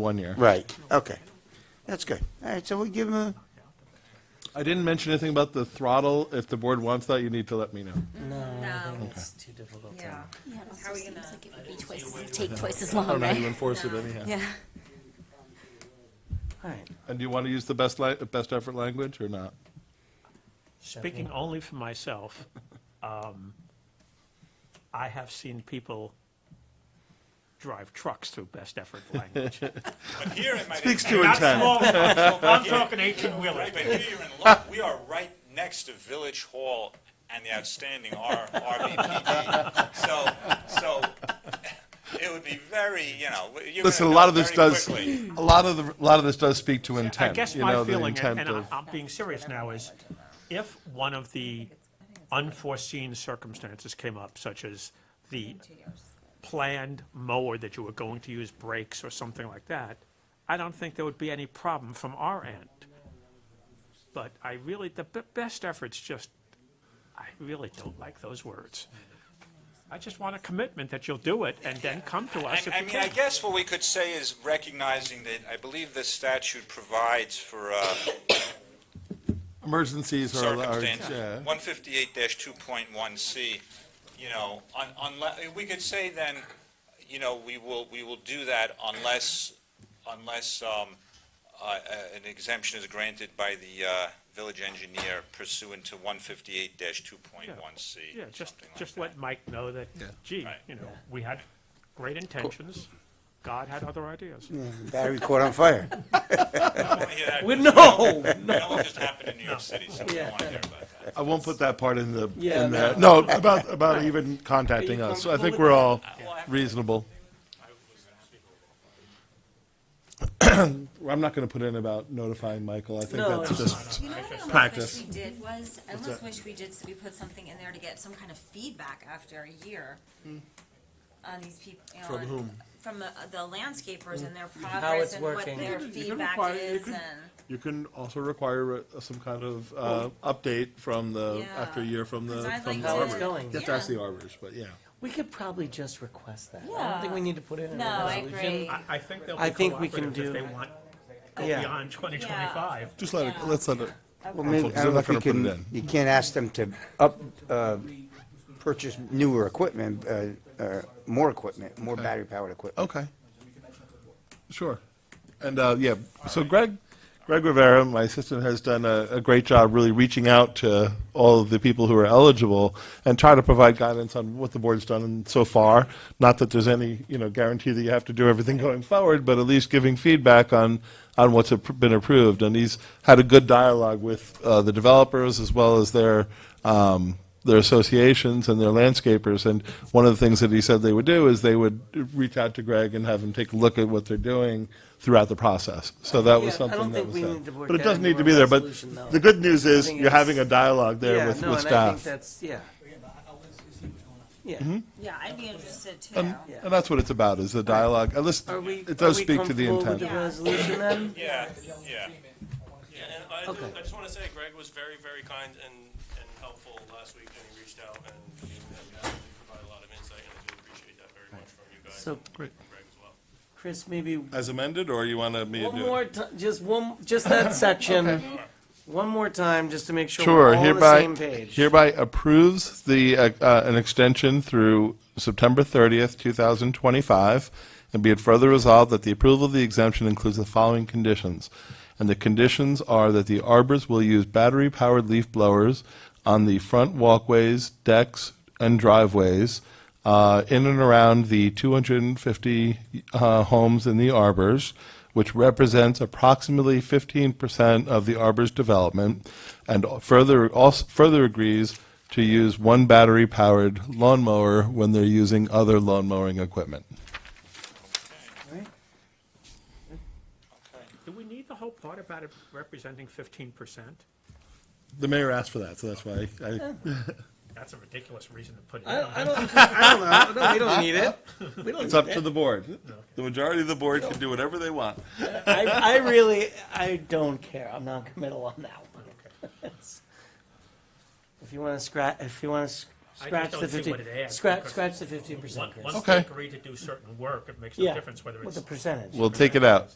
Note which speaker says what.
Speaker 1: one year.
Speaker 2: Right, okay. That's good. All right, so we give him
Speaker 1: I didn't mention anything about the throttle. If the board wants that, you need to let me know.
Speaker 3: No,
Speaker 4: It's too difficult. to-
Speaker 3: yeah.
Speaker 5: Yeah, it
Speaker 3: How
Speaker 5: also
Speaker 3: are we
Speaker 5: seems
Speaker 3: gonna-
Speaker 5: like it would be twice, as- take twice as
Speaker 1: I don't
Speaker 5: long,
Speaker 1: know how you
Speaker 5: right?
Speaker 1: enforce it anyhow.
Speaker 5: Yeah.
Speaker 4: All right.
Speaker 1: And do you want to use the best li, best effort language or not?
Speaker 6: Speaking only for myself, um, I have seen people drive trucks through best effort language.
Speaker 7: But here in my
Speaker 1: Speaks to
Speaker 6: Not
Speaker 7: neighborhood-
Speaker 1: intent.
Speaker 6: small ones, I'm talking eighteen
Speaker 7: Right,
Speaker 6: wheelers.
Speaker 7: but here you're in luck. We are right next to Village Hall and the outstanding R- RVPD. So, so it would be very, you know, you're
Speaker 1: Listen, a
Speaker 7: gonna
Speaker 1: lot
Speaker 7: know
Speaker 1: of this
Speaker 7: very
Speaker 1: does,
Speaker 7: quickly.
Speaker 1: a lot of the, a lot of this does speak to
Speaker 6: I
Speaker 1: intent.
Speaker 6: guess
Speaker 1: you
Speaker 6: my
Speaker 1: know, the
Speaker 6: feeling, and
Speaker 1: intent
Speaker 6: and I-
Speaker 1: of-
Speaker 6: I'm being serious now, is if one of the unforeseen circumstances came up, such as the planned mower that you were going to use brakes or something like that, I don't think there would be any problem from our end. But I really, the b- best efforts just, I really don't like those words. I just want a commitment that you'll do it and then come to us
Speaker 7: I,
Speaker 6: if you
Speaker 7: I
Speaker 6: can.
Speaker 7: mean, I guess what we could say is recognizing that I believe this statute provides for uh,
Speaker 1: Emergencies are, are, yeah.
Speaker 7: circumstances. One fifty-eight two point one C, you know, un, unless, we could say then, you know, we will, we will do that unless, unless, um, uh, uh, an exemption is granted by the, uh, village engineer pursuant to one fifty-eight two point one C.
Speaker 6: Yeah, just, just let Mike know that, gee,
Speaker 7: Right.
Speaker 6: you know, we had great intentions, God had other ideas.
Speaker 2: battery caught on fire.
Speaker 4: We- No,
Speaker 7: That one just happened in New York City, so we don't want to hear about that.
Speaker 1: I won't put that part in the,
Speaker 4: Yeah,
Speaker 1: in the, no, about, about even contacting
Speaker 4: Are you
Speaker 1: us. So I think
Speaker 4: comfortable
Speaker 1: we're all
Speaker 7: Well, I-
Speaker 1: reasonable. I'm not going to put in about notifying Michael. I think
Speaker 4: No,
Speaker 1: that's
Speaker 4: it's
Speaker 1: just,
Speaker 3: You know what I almost
Speaker 1: Practice.
Speaker 3: wish we did was, I almost wish we did, so we put something in there to get some kind of feedback after a year on these people, you know. From whom? From the, the landscapers and their
Speaker 4: it's
Speaker 3: progress and what
Speaker 4: working.
Speaker 1: You
Speaker 3: their
Speaker 1: can- you can
Speaker 3: feedback
Speaker 1: require- you
Speaker 3: is
Speaker 1: can-
Speaker 3: and,
Speaker 1: you can also require uh, some kind of uh, update from the,
Speaker 3: Yeah.
Speaker 1: after a year from the,
Speaker 3: 'Cause I'd
Speaker 1: from
Speaker 3: like
Speaker 1: the
Speaker 4: How it's
Speaker 1: arbor.
Speaker 4: going.
Speaker 1: You have to ask the arborist, but yeah.
Speaker 4: we could probably just request that. I don't
Speaker 3: Yeah.
Speaker 4: think we need to put it in
Speaker 3: no,
Speaker 4: a
Speaker 3: I
Speaker 4: resolution.
Speaker 3: agree.
Speaker 6: I, I think they'll
Speaker 4: I
Speaker 6: be
Speaker 4: think we can
Speaker 6: cooperative if
Speaker 4: do-
Speaker 6: they want, go
Speaker 4: Yeah.
Speaker 6: beyond twenty twenty-five.
Speaker 1: Just let it, let's let it.
Speaker 2: Well, maybe, I don't know if you can, you can't ask them to up, uh, purchase newer equipment, uh, uh, more equipment, more battery-powered equipment.
Speaker 1: Okay. Sure. And, uh, yeah, so Greg, Greg Rivera, my assistant, has done a, a great job really reaching out to all of the people who are eligible and try to provide guidance on what the board's done so far. Not that there's any, you know, guarantee that you have to do everything going forward, but at least giving feedback on, on what's appro- been approved. And he's had a good dialogue with, uh, the developers as well as their, um, their associations and their landscapers. And one of the things that he said they would do is they would reach out to Greg and have him take a look at what they're doing throughout the process. So that was
Speaker 4: Yeah, I don't
Speaker 1: something that
Speaker 4: think
Speaker 1: was
Speaker 4: we
Speaker 1: said.
Speaker 4: need to work
Speaker 1: But it
Speaker 4: that
Speaker 1: doesn't
Speaker 4: into
Speaker 1: need to
Speaker 4: our
Speaker 1: be there, but
Speaker 4: resolution, though.
Speaker 1: the good news is
Speaker 4: think
Speaker 1: you're
Speaker 4: it's-
Speaker 1: having a dialogue
Speaker 4: yeah,
Speaker 1: there with,
Speaker 4: no,
Speaker 1: with
Speaker 4: and I think
Speaker 1: staff.
Speaker 4: that's yeah. Mm-hmm. Yeah.
Speaker 3: Yeah, I'd be interested too.
Speaker 4: yeah.
Speaker 1: And that's what it's about, is the dialogue. And listen,
Speaker 4: Are we?
Speaker 1: it does
Speaker 4: are we
Speaker 1: speak to the
Speaker 4: comfortable with
Speaker 1: intent.
Speaker 4: the resolution then?
Speaker 7: Yeah, yeah.
Speaker 8: Yeah, and I, do-
Speaker 4: Okay.
Speaker 8: I just want to say Greg was very, very kind and, and helpful last week when he reached out and he provided a lot of insight, and I do appreciate that very much from you guys.
Speaker 4: So-
Speaker 8: and
Speaker 1: Great.
Speaker 8: from Greg as well.
Speaker 4: Chris, maybe
Speaker 1: As amended, or you want me to
Speaker 4: One
Speaker 1: do
Speaker 4: more
Speaker 1: it?
Speaker 4: ti- just one, just that section, one more time, just to make sure
Speaker 1: Sure,
Speaker 4: we're all on the
Speaker 1: hereby,
Speaker 4: same page.
Speaker 1: hereby approves the, uh, uh, an extension through September 30th, 2025, and be it further resolved that the approval of the exemption includes the following conditions. And the conditions are that the arbors will use battery-powered leaf blowers on the front walkways, decks, and driveways uh, in and around the 250 uh, homes in the arbors, which represents approximately 15% of the arbor's development, and further, also further agrees to use one battery-powered lawnmower when they're using other lawn mowing equipment.
Speaker 6: Do we need the whole part about it representing fifteen percent?
Speaker 1: The mayor asked for that, so that's why I,
Speaker 6: That's a ridiculous reason to put it in.
Speaker 4: I I don't, I don't know, No, we don't need it. We don't
Speaker 1: it's
Speaker 4: need
Speaker 1: up
Speaker 4: it.
Speaker 1: to the board. The majority of the board can do whatever they want.
Speaker 4: I, I really, I don't care, I'm non-committal on that one. If you wanna scratch, if you wanna s-
Speaker 6: I just
Speaker 4: Scratch
Speaker 6: don't
Speaker 4: the
Speaker 6: see
Speaker 4: fifteen,
Speaker 6: what it adds,
Speaker 4: scratch,
Speaker 6: because
Speaker 4: scratch the fifteen percent,
Speaker 6: Once
Speaker 4: Chris.
Speaker 6: once
Speaker 1: Okay.
Speaker 6: they agree to do certain work, it makes no
Speaker 4: Yeah,
Speaker 6: difference whether it's.
Speaker 4: With the percentage.
Speaker 1: We'll take it out.